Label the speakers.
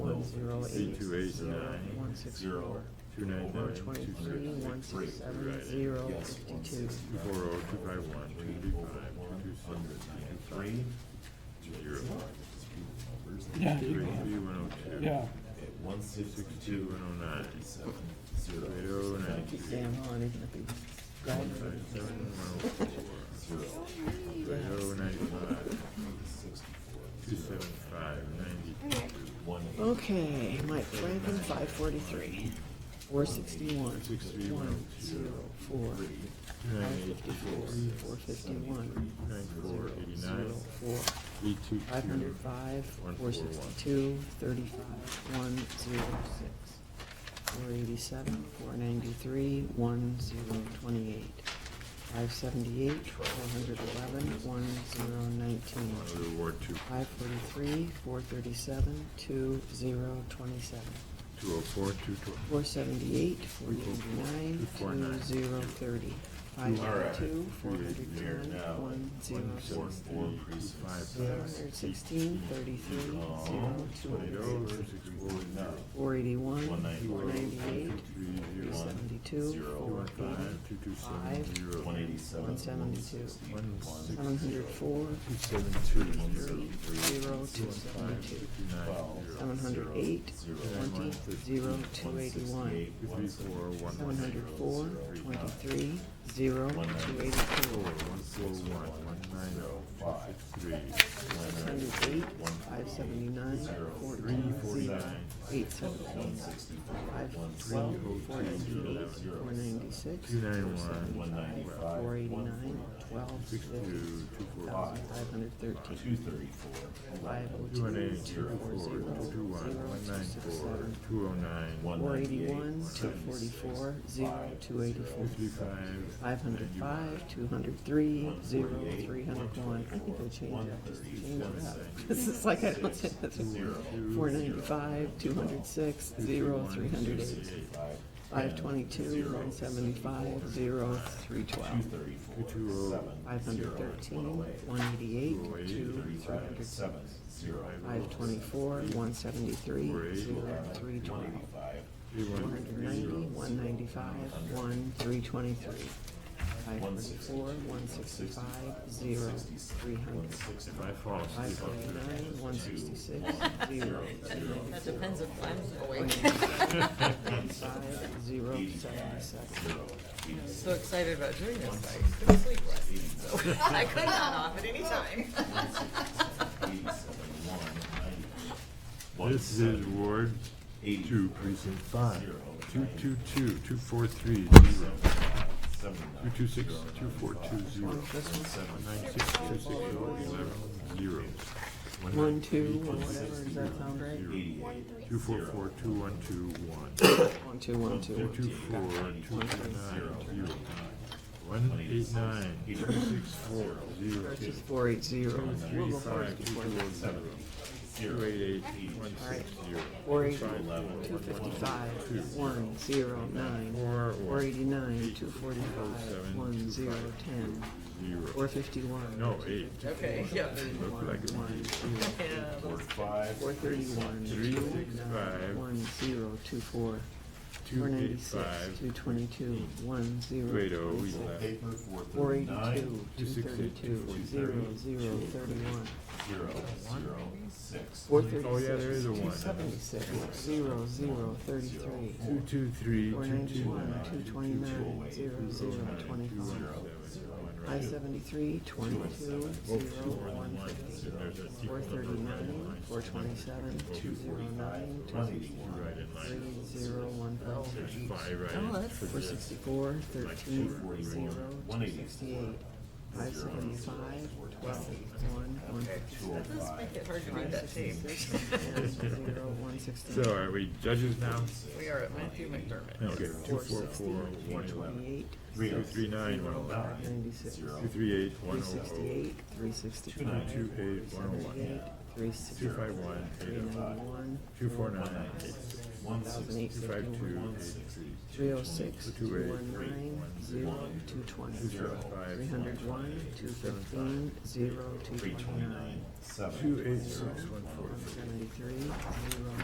Speaker 1: zero eight
Speaker 2: Eight two eight
Speaker 1: zero
Speaker 2: nine
Speaker 1: one six
Speaker 2: zero
Speaker 1: four.
Speaker 2: two nine
Speaker 1: Four
Speaker 2: nine two
Speaker 1: twenty-three, one
Speaker 2: six six
Speaker 1: six
Speaker 2: three.
Speaker 1: seven, zero fifty-two.
Speaker 2: Two four oh two five one two three five two two seven two three zero
Speaker 3: Yeah,
Speaker 2: three
Speaker 3: you-
Speaker 2: three one oh two.
Speaker 3: yeah.
Speaker 4: One
Speaker 2: Six two one oh nine. Eight oh nine
Speaker 1: Keep
Speaker 2: three.
Speaker 1: staying on, isn't it? Go
Speaker 2: One
Speaker 1: ahead.
Speaker 2: five seven one oh four. Eight oh nine five. Two seven five ninety two.
Speaker 1: Okay, Mike Franklin, five forty-three, four sixty-one,
Speaker 2: Six three
Speaker 1: one
Speaker 2: one
Speaker 1: zero
Speaker 2: zero
Speaker 1: four,
Speaker 2: nine
Speaker 1: five
Speaker 2: eight
Speaker 1: fifty-four, four fifty-one,
Speaker 2: nine four eighty
Speaker 1: zero
Speaker 2: nine
Speaker 1: four,
Speaker 2: eight two two.
Speaker 1: five hundred five, four sixty-two, thirty-five, one zero six, four eighty-seven, four ninety-three, one zero twenty-eight, five seventy-eight, four hundred eleven, one zero nineteen,
Speaker 2: One of the Ward two,
Speaker 1: five forty-three, four thirty-seven, two zero twenty-seven.
Speaker 2: two oh four, two two.
Speaker 1: Four seventy-eight, four ninety-nine, two zero thirty, five ninety-two, four hundred ten, one zero six, zero hundred sixteen, thirty-three, zero, two hundred six, four eighty-one, four ninety-eight, three seventy-two, four eighty,
Speaker 2: Two two seven zero.
Speaker 4: One eighty-seven.
Speaker 1: one seventy-two,
Speaker 2: One six
Speaker 1: seven hundred four,
Speaker 2: two seven two
Speaker 1: thirty,
Speaker 2: zero.
Speaker 1: zero, two seventy-two,
Speaker 2: Two nine zero.
Speaker 1: seven hundred eight, twenty, zero, two eighty-one,
Speaker 2: Two three four one.
Speaker 1: seven hundred four, twenty-three, zero, two eighty-two,
Speaker 2: Four one four one one nine zero five three.
Speaker 1: Six hundred eight, five seventy-nine, fourteen, zero, eight seventeen, five twelve, four ninety-eight, four ninety-six,
Speaker 2: Two nine one.
Speaker 4: One ninety-five.
Speaker 1: four eighty-nine, twelve,
Speaker 2: Six two
Speaker 1: fifty,
Speaker 2: two four five.
Speaker 1: thousand five hundred
Speaker 4: Two
Speaker 1: thirteen,
Speaker 4: thirty-four.
Speaker 1: five oh
Speaker 2: Two one
Speaker 1: two,
Speaker 2: eight
Speaker 1: two four zero,
Speaker 2: two two one
Speaker 1: zero,
Speaker 2: one
Speaker 1: two
Speaker 2: nine
Speaker 1: six
Speaker 2: four
Speaker 1: seven,
Speaker 2: two oh nine one
Speaker 1: four eighty-one, two forty-four, zero, two eighty-four,
Speaker 2: three five.
Speaker 1: five hundred five, two hundred three, zero, three hundred one. I think I changed that, just to change it up. This is like I don't have
Speaker 2: Zero two.
Speaker 1: Four ninety-five, two hundred six, zero, three hundred eight. Five twenty-two, one seventy-five, zero, three twelve.
Speaker 4: Thirty-four.
Speaker 1: Five hundred thirteen, one eighty-eight, two, three hundred seven.
Speaker 4: Seven, zero.
Speaker 1: Five twenty-four, one seventy-three, zero, three twelve.
Speaker 2: Three
Speaker 1: Four
Speaker 2: one
Speaker 1: hundred ninety, one ninety-five, one, three twenty-three. Five forty-four, one sixty-five, zero, three hundred.
Speaker 2: five false.
Speaker 1: Five forty-nine, one sixty-six, zero, two
Speaker 5: That depends if I'm awake.
Speaker 1: ninety-five, zero, seventy-seven.
Speaker 5: I'm so excited about doing this. I couldn't sleep last night, so I could not off at any time.
Speaker 2: This is Ward
Speaker 4: Eight.
Speaker 2: two precinct five.
Speaker 4: Zero.
Speaker 2: Two two two two four three zero. Two two six two four two zero.
Speaker 1: This one?
Speaker 2: One nine six two six zero eleven zero.
Speaker 1: One, two, or whatever, does that sound right?
Speaker 2: Two four four two one two one.
Speaker 1: One, two, one,
Speaker 2: Two
Speaker 1: two.
Speaker 2: two four two nine zero. One eight nine two six four zero.
Speaker 1: Versus four, eight, zero. We'll
Speaker 2: Three
Speaker 1: go
Speaker 2: five
Speaker 1: first
Speaker 2: two
Speaker 1: before
Speaker 2: two
Speaker 1: that.
Speaker 2: one zero. Two eight eight one six zero.
Speaker 1: Four eighty, two fifty-five, one, zero, nine.
Speaker 2: Four
Speaker 1: Four eighty-nine, two forty-five, one, zero, ten. Four
Speaker 2: zero.
Speaker 1: fifty-one.
Speaker 2: No, eight.
Speaker 5: Okay, yeah.
Speaker 2: Look like it might be
Speaker 4: Five.
Speaker 1: Four thirty-one,
Speaker 2: Three,
Speaker 1: two,
Speaker 2: six,
Speaker 1: nine,
Speaker 2: five.
Speaker 1: one, zero, two, four. Four
Speaker 2: two eight
Speaker 1: ninety-six,
Speaker 2: five
Speaker 1: two twenty-two, one, zero.
Speaker 2: two eight oh eleven.
Speaker 4: Paper, four
Speaker 1: Four
Speaker 4: thirty-nine.
Speaker 1: eighty-two, two thirty-two,
Speaker 2: 268,
Speaker 1: zero, zero, thirty-one.
Speaker 4: Zero, zero, six.
Speaker 1: Four
Speaker 2: Oh, yeah, there
Speaker 1: thirty-six,
Speaker 2: is a
Speaker 1: two
Speaker 2: one.
Speaker 1: seventy-six, zero, zero, thirty-three.
Speaker 2: Two two three
Speaker 1: Four
Speaker 2: two two
Speaker 1: ninety-one,
Speaker 2: nine.
Speaker 1: two twenty-nine, zero, zero, twenty-five. Five seventy-three, twenty-two, zero, one fifty. Four thirty-nine, four twenty-seven, two zero nine, two
Speaker 2: Right in
Speaker 1: sixty-three,
Speaker 2: line.
Speaker 1: zero, one
Speaker 2: There's
Speaker 1: fifty.
Speaker 2: five right
Speaker 5: Oh,
Speaker 2: in.
Speaker 5: that's-
Speaker 2: for
Speaker 1: Four
Speaker 2: this.
Speaker 1: sixty-four, thirteen, zero, two sixty-eight. Five seventy-five, twelve, one, one
Speaker 5: That
Speaker 1: fifty-seven.
Speaker 5: does make it hard to read that tape.
Speaker 1: Zero, one
Speaker 2: So
Speaker 1: sixty-nine.
Speaker 2: are we judges now?
Speaker 5: We are at Matthew McDermott.
Speaker 2: Okay, two four four one eleven.
Speaker 1: Twenty-eight,
Speaker 2: Two three nine one eleven.
Speaker 1: ninety-six.
Speaker 2: Two three eight one
Speaker 1: Three
Speaker 2: oh oh.
Speaker 1: sixty-eight, three sixty-five.
Speaker 2: Two eight one oh
Speaker 1: Eight,
Speaker 2: one.
Speaker 1: three
Speaker 2: Two
Speaker 1: sixty-five.
Speaker 2: five one
Speaker 1: Three
Speaker 2: eight oh five.
Speaker 1: ninety-one.
Speaker 2: Two four nine eight six.
Speaker 4: One, six,
Speaker 1: Thousand eight
Speaker 2: Two five two
Speaker 1: fifty-one.
Speaker 2: eight three.
Speaker 1: Three oh six, two
Speaker 2: Two eight
Speaker 1: one
Speaker 2: three
Speaker 1: nine,
Speaker 2: one
Speaker 1: zero,
Speaker 2: one.
Speaker 1: two twenty.
Speaker 2: Two seven five.
Speaker 1: Three hundred one, two fifteen, zero, two
Speaker 4: Three
Speaker 1: twenty-nine.
Speaker 4: twenty-nine, seven.
Speaker 2: Two eight six one four
Speaker 1: One
Speaker 2: three.
Speaker 1: seventy-three, zero,